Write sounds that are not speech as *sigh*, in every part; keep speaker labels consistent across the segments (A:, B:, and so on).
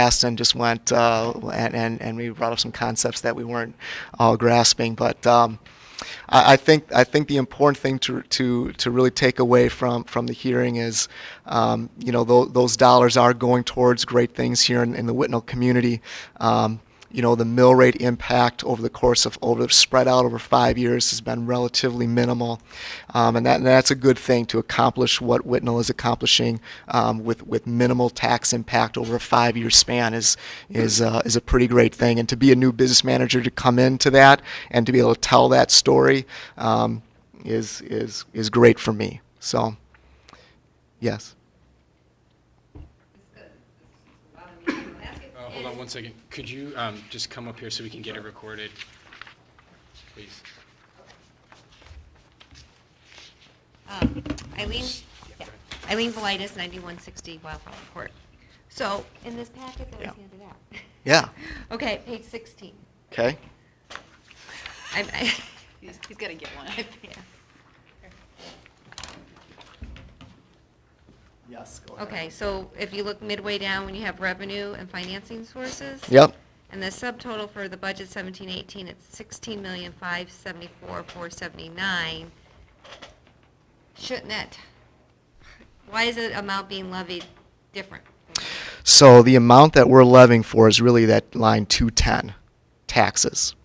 A: asked and just went uh, and, and and we brought up some concepts that we weren't all grasping. But um, I, I think I think the important thing to to to really take away from from the hearing is, um, you know, tho- those dollars are going towards great things here in, in the Whitnell community. Um, you know, the mill rate impact over the course of over spread out over five years has been relatively minimal, um, and that and that's a good thing to accomplish what Whitnell is accomplishing um, with with minimal tax impact over a five year span is is uh, is a pretty great thing. And to be a new business manager to come into that and to be able to tell that story um, is is is great for me. So, yes.
B: Uh, Hold on one second. Could you um, just come up here so we can get it recorded? Please.
C: Um, Eileen, yeah. Eileen Velitis, 9160 Wildflower Court. So in this packet that was
A: Yeah.
C: handed out.
A: Yeah.
C: *laughs* Okay, page 16.
A: Okay.
C: I'm- I- *laughs*
D: He's, he's gonna get one.
C: yeah.
A: Yes. Go
C: Okay, so if you look midway down, when you have revenue and financing sources.
A: Yep.
C: And the subtotal for the budget 1718, it's 16,574,479. Shouldn't that, why is the amount being levied different?
A: So the amount that we're levying for is really that line 210, taxes.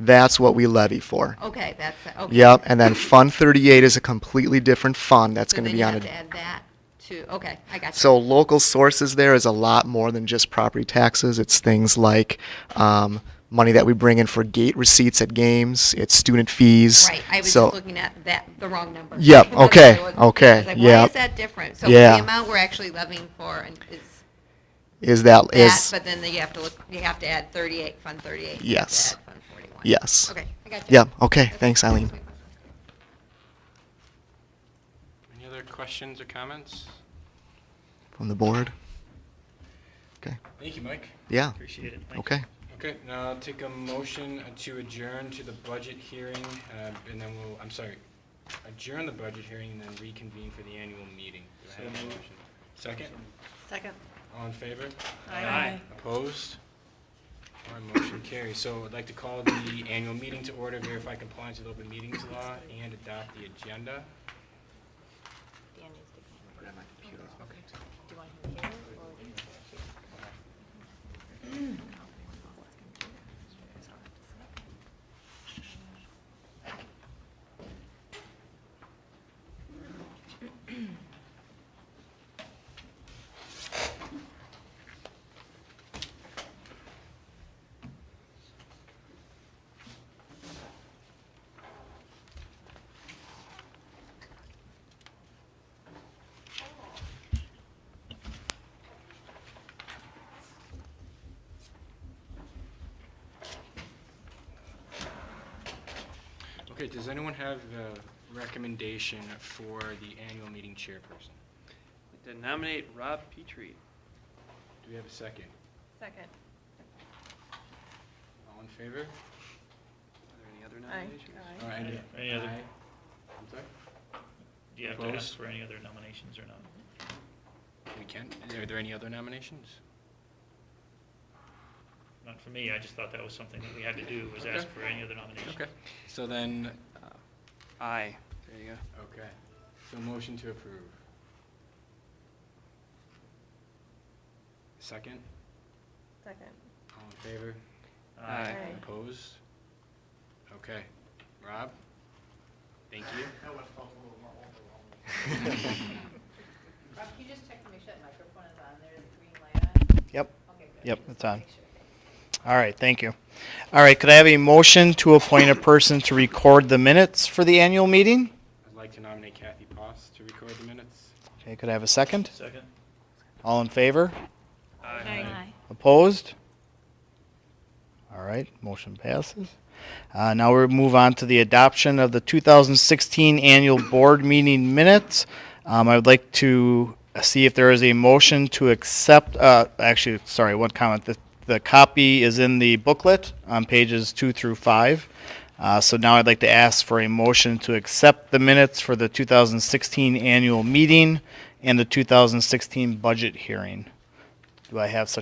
A: That's what we levy for.
C: Okay, that's, okay.
A: Yep, and
C: *coughs*
A: then Fund 38 is a completely different fund that's going to be on
C: So then you
A: a.
C: have to add that to, okay, I got you.
A: So local sources there is a lot more than just property taxes. It's things like um, money that we bring in for gate receipts at games, it's student fees.
C: Right, I was
A: So-
C: just looking at that, the wrong number.
A: Yep,
C: *laughs* That's what
A: okay,
C: I was-
A: okay,
C: I was like,
A: yep.
C: Why is that different? So
A: Yeah.
C: the amount we're actually levying for and is
A: Is that,
C: that,
A: is,
C: but then you have to look, you have to add 38, Fund 38. you have to
A: Yes.
C: add Fund 41.
A: yes.
C: Okay, I got you.
A: Yep, okay, thanks Eileen.
B: Any other questions or comments?
A: From the board? Okay,
B: Thank you, Mike.
A: yeah,
B: Appreciate it.
A: okay.
B: Okay, now I'll take a motion to adjourn to the budget hearing, uh, and then we'll, I'm sorry, adjourn the budget hearing and then reconvene for the annual meeting. Do I have a motion? Second?
D: Second.
B: All in favor?
D: Aye.
B: Opposed? Our motion carries. So I'd like to call the annual meeting to order, verify compliance with open meetings law, and adopt the agenda.
D: Dan needs to. Okay. Do you want him here or?
B: Okay, does anyone have a recommendation for the annual meeting chairperson?
E: To nominate Rob Petrie.
B: Do we have a second?
D: Second.
B: All in favor?
E: Are there any other nominations?
B: Or any-
F: Any other-
B: Aye. I'm sorry?
F: Do you have to
B: Close.
F: ask for any other nominations or not?
B: We can, are there any other nominations?
F: Not for me, I just thought that was something that we had to do, was ask
B: Okay.
F: for any other nominations.
B: Okay, so then,
E: Aye. There you go.
B: okay, so motion to approve. Second,
D: Second.
B: all in favor?
F: Uh,
E: Aye.
B: Opposed? Okay, Rob? Thank you. *laughs*
D: Rob, can you just check to make sure that microphone is on there, the green light on?
G: Yep,
D: Okay, good.
G: yep,
D: Just
G: it's
D: wanna
G: on.
D: make sure.
G: All right, thank you. All right, could I have a motion to appoint a person to record the minutes for the annual meeting?
B: I'd like to nominate Kathy Poss to record the minutes.
G: Okay, could I have a second?
F: Second?
G: All in favor?
F: Aye.
G: Opposed? All right, motion passes. Uh, now we move on to the adoption of the 2016 annual board meeting minutes. Um, I would like to see if there is a motion to accept, uh, actually, sorry, one comment. The, the copy is in the booklet on pages two through five. Uh, so now I'd like to ask for a motion to accept the minutes for the 2016 annual meeting and the 2016 budget hearing. Do I have such